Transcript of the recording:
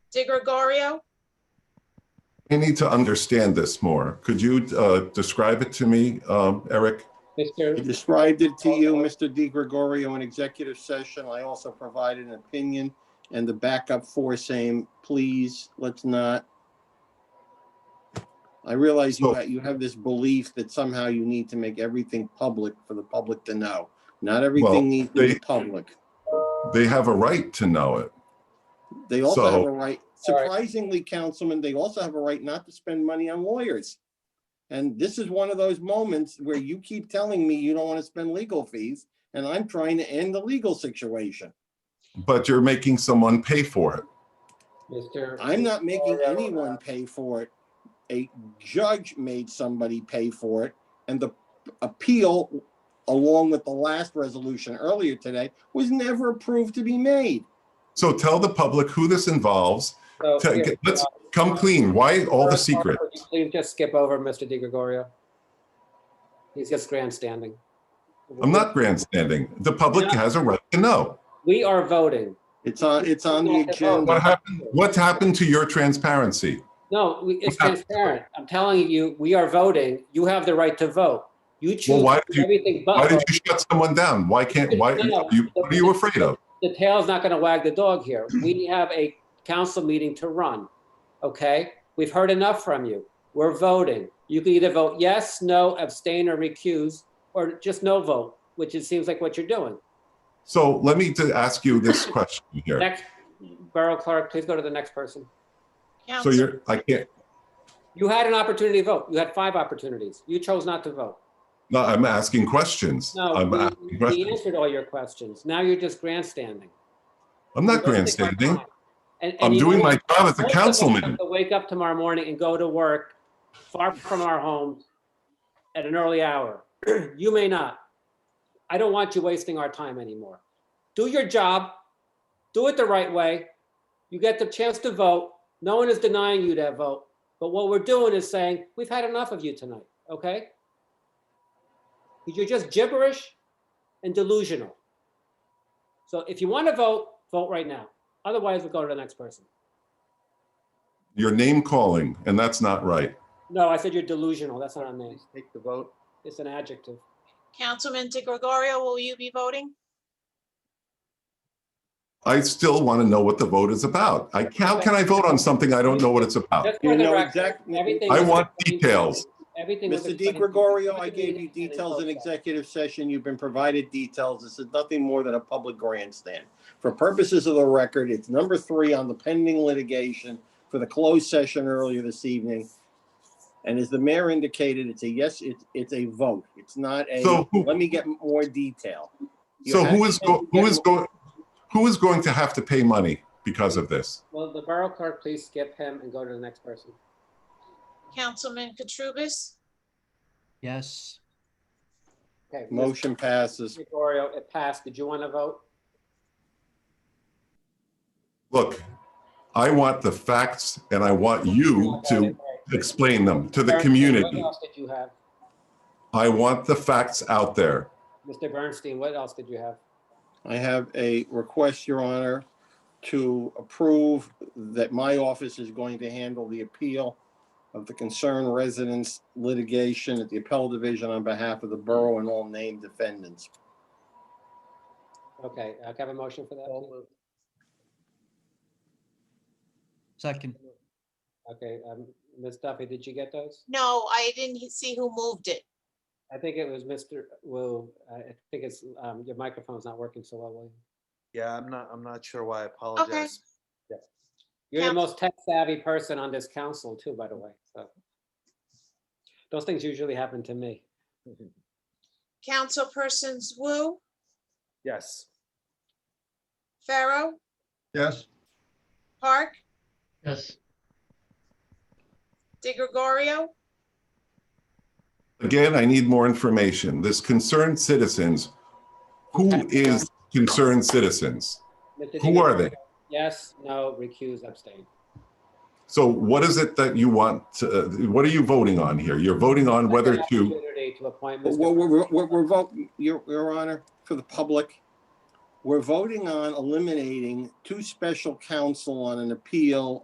De Gregorio? I need to understand this more. Could you uh, describe it to me, um, Eric? I Mr. described it to you, Mr. Di Gregorio, in executive session. I also provided an opinion and the backup for same, please, let's not. I realize you, So- ha- you have this belief that somehow you need to make everything public for the public to know. Not everything needs to be they- public. They have a right to know it. They also have So- a right, All right. surprisingly, Councilman, they also have a right not to spend money on lawyers. And this is one of those moments where you keep telling me you don't want to spend legal fees, and I'm trying to end the legal situation. But you're making someone pay for it. Mr. I'm not making Gregorio, anyone pay for it. A judge made somebody pay for it, and the appeal, along with the last resolution earlier today, was never approved to be made. So tell the public who this involves. So, Tell- here, Let's uh, come clean. Why all the first off, secret? would you Please just skip over Mr. Di Gregorio. He's just grandstanding. I'm not grandstanding. The public has a right to know. We are voting. It's on, it's on the agenda. What happened? What happened to your transparency? No, we- it's What transparent. I'm telling you, we are voting. You have the right to vote. You choose why did you- everything Why but did vote. you shut someone down? Why can't, why, you- what are you afraid of? the tail's not going to wag the dog here. We have a council meeting to run. Okay? We've heard enough from you. We're voting. You can either vote yes, no, abstain, or recuse, or just no vote, which it seems like what you're doing. So let me to ask you this question here. Next, Borough Clerk, please go to the next person. So Council- you're, I can't, You had an opportunity to vote. You had five opportunities. You chose not to vote. no, I'm asking questions. No, I'm we- asking we questions. answered all your questions. Now you're just grandstanding. I'm not You're wasting our grandstanding. time. And- and I'm you know doing what? my job as a Most of us councilman. have to Wake up tomorrow morning and go to work far from our homes at an early hour. You may not. I don't want you wasting our time anymore. Do your job, do it the right way. You get the chance to vote. No one is denying you that vote. But what we're doing is saying, we've had enough of you tonight, okay? You're just gibberish and delusional. So if you want to vote, vote right now. Otherwise, we'll go to the next person. You're name calling, and that's not right. No, I said you're delusional. That's not a name. Take the vote. It's an adjective. Councilman De Gregorio, will you be voting? I still want to know what the vote is about. I, how can I vote on something I don't know what it's about? Just You for the know record, exactly- everything Oh. I was want explained- details. Everything was Mr. Di explained- Gregorio, I gave And in you details in closed session. executive session. You've been provided details. This is nothing more than a public grandstand. For purposes of the record, it's number three on the pending litigation for the closed session earlier this evening. And as the mayor indicated, it's a yes, it's, it's a vote. It's not a, So who- let me get more detail. You So who have is, to go- who get is more- going, who is going to have to pay money because of this? Well, the borough clerk, please skip him and go to the next person. Councilman Katrubis? Yes, Okay. Mr. Motion passes. Gregorio, it passed. Did you want to vote? Look, I want the facts and I want you to explain them to the Bernstein, community. What else did you have? I want the facts out there. Mr. Bernstein, what else did you have? I have a request, Your Honor, to approve that my office is going to handle the appeal of the concerned residents litigation at the appellate division on behalf of the borough and all named defendants. Okay, uh, can I have a motion for that? please? second, Okay, um, Ms. Duffy, did you get those? No, I didn't he- see who moved it. I think it was Mr. Wu. I I think it's, um, your microphone's not working so well, William. Yeah, I'm not, I'm not sure why. I apologize. You're the Council- most tech savvy person on this council too, by the way, so. Those things usually happen to me. Councilpersons Wu, Yes. Pharaoh, Yes, Park, yes, De Gregorio, Again, I need more information. This concerned citizens, who is concerned citizens? Mr. Who are DiGregorio, they? Yes, no, recuse, abstain. So what is it that you want, to- uh, what are you voting on here? You're voting on whether Second to, opportunity To appoint But Mr. We're, we're, we're- we're voting, Your, Your Honor, for the public, we're voting on eliminating two special counsel on an appeal